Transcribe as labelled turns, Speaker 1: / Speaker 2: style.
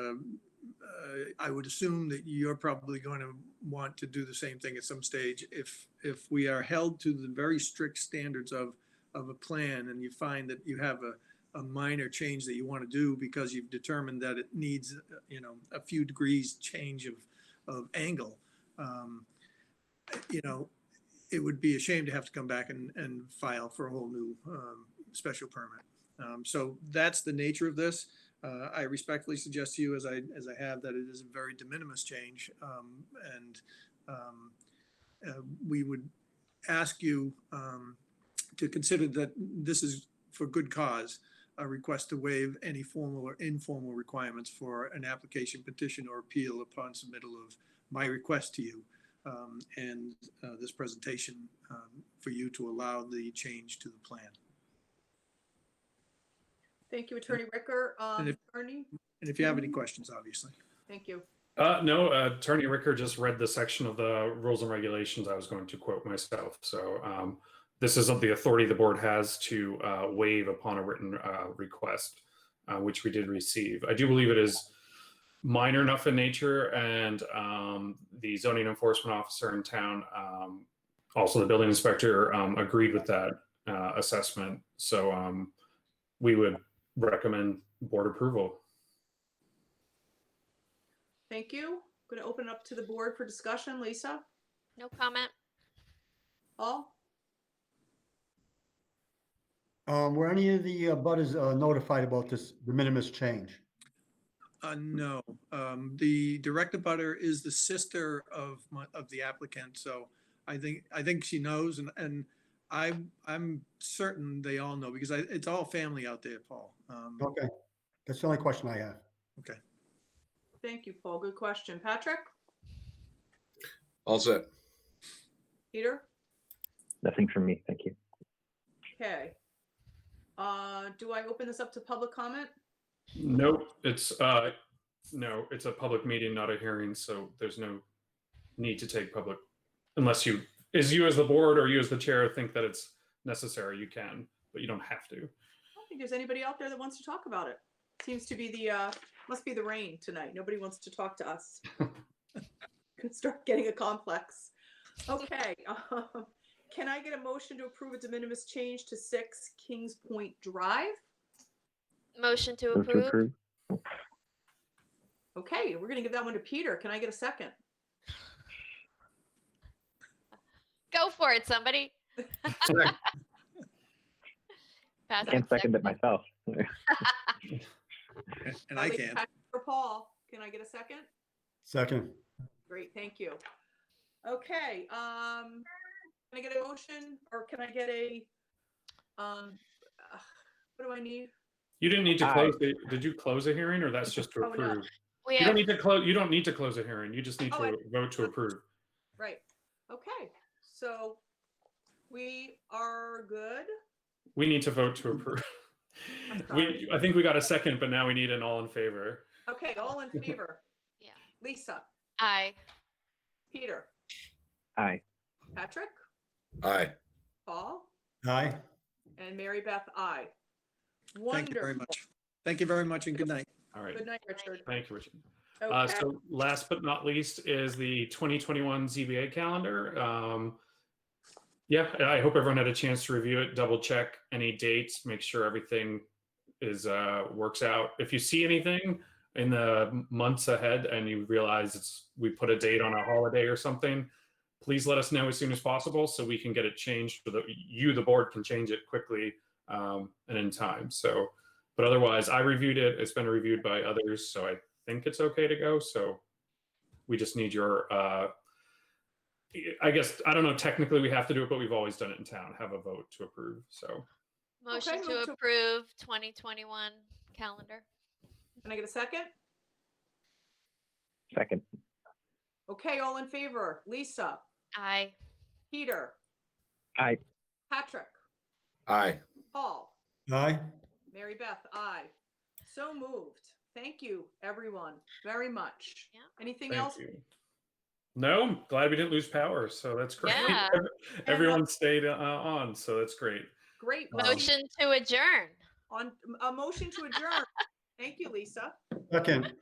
Speaker 1: um, uh, I would assume that you're probably going to want to do the same thing at some stage. If, if we are held to the very strict standards of, of a plan and you find that you have a, a minor change that you want to do because you've determined that it needs, uh, you know, a few degrees change of, of angle, um, you know, it would be a shame to have to come back and, and file for a whole new um, special permit. Um, So that's the nature of this. Uh, I respectfully suggest to you, as I, as I have, that it is a very de minimis change. um, And um, uh, we would ask you um, to consider that this is for good cause, a request to waive any formal or informal requirements for an application, petition, or appeal upon submittal of my request to you um, and uh, this presentation um, for you to allow the change to the plan.
Speaker 2: Thank you, Attorney Ricker. Um,
Speaker 1: And if-
Speaker 2: Attorney,
Speaker 1: And if you have any questions, obviously.
Speaker 2: thank you.
Speaker 3: Uh, no, uh, Attorney Ricker just read the section of the rules and regulations I was going to quote myself. So um, this isn't the authority the board has to uh, waive upon a written uh, request, uh, which we did receive. I do believe it is minor enough in nature, and um, the zoning enforcement officer in town, um, also the building inspector, um, agreed with that uh, assessment. So um, we would recommend board approval.
Speaker 2: Thank you. Going to open it up to the board for discussion. Lisa,
Speaker 4: No comment.
Speaker 2: all?
Speaker 5: Um, were any of the uh, butters uh, notified about this de minimis change?
Speaker 1: Uh, no, um, the direct abutter is the sister of my, of the applicant, so I think, I think she knows and, and I, I'm certain they all know because I, it's all family out there, Paul. Um,
Speaker 5: Okay, that's the only question I have.
Speaker 2: Thank you, Paul. Good question. Patrick,
Speaker 6: All set.
Speaker 2: Peter,
Speaker 7: Nothing from me. Thank you.
Speaker 2: okay. Uh, do I open this up to public comment?
Speaker 3: Nope, it's, uh, no, it's a public meeting, not a hearing, so there's no need to take public, unless you, is you as the board or you as the chair think that it's necessary, you can, but you don't have to.
Speaker 2: I don't think there's anybody out there that wants to talk about it. Seems to be the, uh, must be the rain tonight. Nobody wants to talk to us. Could start getting a complex. Okay, um, can I get a motion to approve a de minimis change to six Kings Point Drive?
Speaker 4: Motion to
Speaker 7: Move to
Speaker 4: approve.
Speaker 7: approve.
Speaker 2: Okay, we're gonna give that one to Peter. Can I get a second?
Speaker 4: Go for it, somebody.
Speaker 6: Second.
Speaker 4: Patrick,
Speaker 7: Can't second
Speaker 4: seconded.
Speaker 7: it myself.
Speaker 1: And I
Speaker 2: Ellie,
Speaker 1: can.
Speaker 2: Patrick, Or Paul, can I get a second?
Speaker 5: Second,
Speaker 2: Great, thank you. Okay, um, can I get a motion or can I get a, um, uh, what do I need?
Speaker 3: You didn't need to
Speaker 7: Aye.
Speaker 3: close, the did you close a hearing or that's just to
Speaker 2: Uh, Oh, no.
Speaker 3: approve?
Speaker 4: We
Speaker 3: You don't
Speaker 4: have,
Speaker 3: need to close, you don't need to close a hearing, you just need
Speaker 2: Oh, I-
Speaker 3: to vote to approve.
Speaker 2: Right, okay, so we are good.
Speaker 3: We need to vote to approve.
Speaker 2: I'm sorry.
Speaker 3: We, I think we got a second, but now we need an all in favor.
Speaker 2: Okay, all in favor?
Speaker 4: Yeah.
Speaker 2: Lisa,
Speaker 4: aye.
Speaker 2: Peter,
Speaker 7: Aye.
Speaker 2: Patrick,
Speaker 6: Aye.
Speaker 2: Paul,
Speaker 5: aye.
Speaker 2: and Mary Beth, I.
Speaker 1: Thank you very
Speaker 2: Wonderful.
Speaker 1: much. Thank you very much and good night.
Speaker 3: All right,
Speaker 2: Good night, Richard.
Speaker 3: thank you, Richard. Uh,
Speaker 2: Okay.
Speaker 3: so last but not least is the 2021 ZBA calendar. Um, yeah, and I hope everyone had a chance to review it, double check any dates, make sure everything is uh, works out. If you see anything in the months ahead and you realize it's we put a date on a holiday or something, please let us know as soon as possible so we can get it changed. So that you, the board, can change it quickly um, and in time. So, but otherwise, I reviewed it. It's been reviewed by others, so I think it's okay to go. So we just need your, uh, I guess, I don't know, technically we have to do it, but we've always done it in town, have a vote to approve. So
Speaker 4: Motion
Speaker 2: move
Speaker 4: to
Speaker 2: to-
Speaker 4: approve 2021 calendar.
Speaker 2: Can I get a second?
Speaker 7: Second.
Speaker 2: Okay, all in favor? Lisa,
Speaker 4: Aye.
Speaker 2: Peter,
Speaker 7: Aye.
Speaker 2: Patrick,
Speaker 6: Aye.
Speaker 2: Paul,
Speaker 5: Aye,
Speaker 2: Mary Beth, I. So moved. Thank you, everyone, very much.
Speaker 4: Yeah.
Speaker 2: Anything
Speaker 3: thank
Speaker 2: else?
Speaker 3: you. No, I'm glad we didn't lose power. So that's great.
Speaker 4: Yeah.
Speaker 3: Everyone stayed uh, on. So that's great.
Speaker 2: Great.
Speaker 3: Um,
Speaker 4: Motion to adjourn.
Speaker 2: On, a motion to adjourn. Thank you, Lisa.
Speaker 5: second.